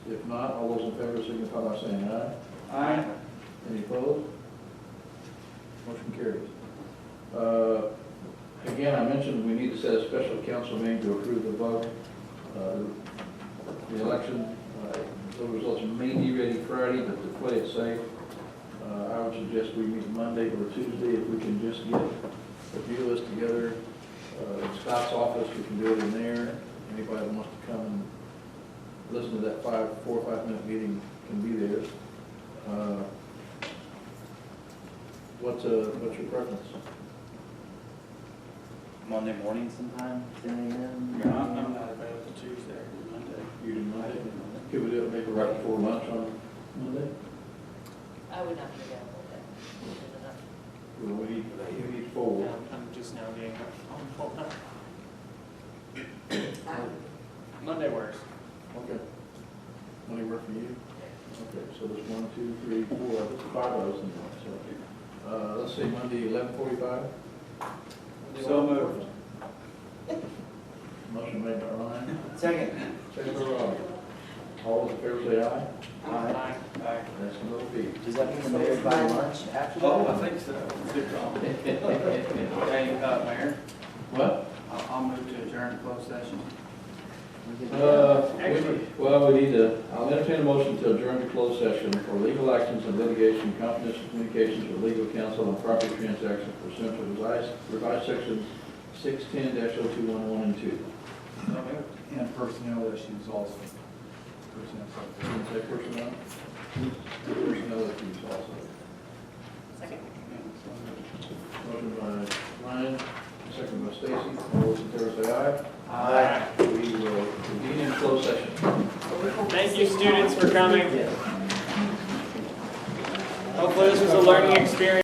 not, all those in favor signify by saying aye. Aye. Any opposed? Motion carries. Uh, Again, I mentioned we need to set a special council meeting to approve the vote. Uh, The election, uh, the results may be ready Friday, but to play it safe, uh, I would suggest we meet Monday or Tuesday if we can just get the view list together. Uh, In Scott's office, we can do it in there. Anybody that wants to come and listen to that five, four or five-minute meeting can be there. Uh, What's, uh, what's your preference? Monday morning sometime, ten AM? I'm, I'm not available Tuesday or Monday. You do Monday? Could we do it maybe right before lunch on Monday? I would not be available then. Well, we need, we need I'm, four. I'm just now being helpful. No, no, no. Monday works. Okay. Money work for you? Okay, so there's one, two, three, four, five of us in one, so. Uh, let's say Monday, eleven forty-five? So moved. Motion made by Ryan, Second. second by Rob. All those in favor say aye. Aye. Aye. That's a little big. Does that mean the mayor's by lunch after that? Oh, I think so. Good call. Hey, uh, Mayor, What? I'll, I'll move to adjourn closed session. Uh, we- Actually- well, we need to, I'll entertain a motion to adjourn to closed session for legal actions and litigation, confidential communications with legal counsel and property transactions pursuant to revised, revised sections six ten 211 and two. So moved. And personnel issues also. Personnel. Can you say personnel? Personnel issues also. Second. Motion by Ryan, second by Stacy, all those in favor say aye. Aye. We will convene in closed session. Thank you, students, for coming. Hopefully, this was a learning experience.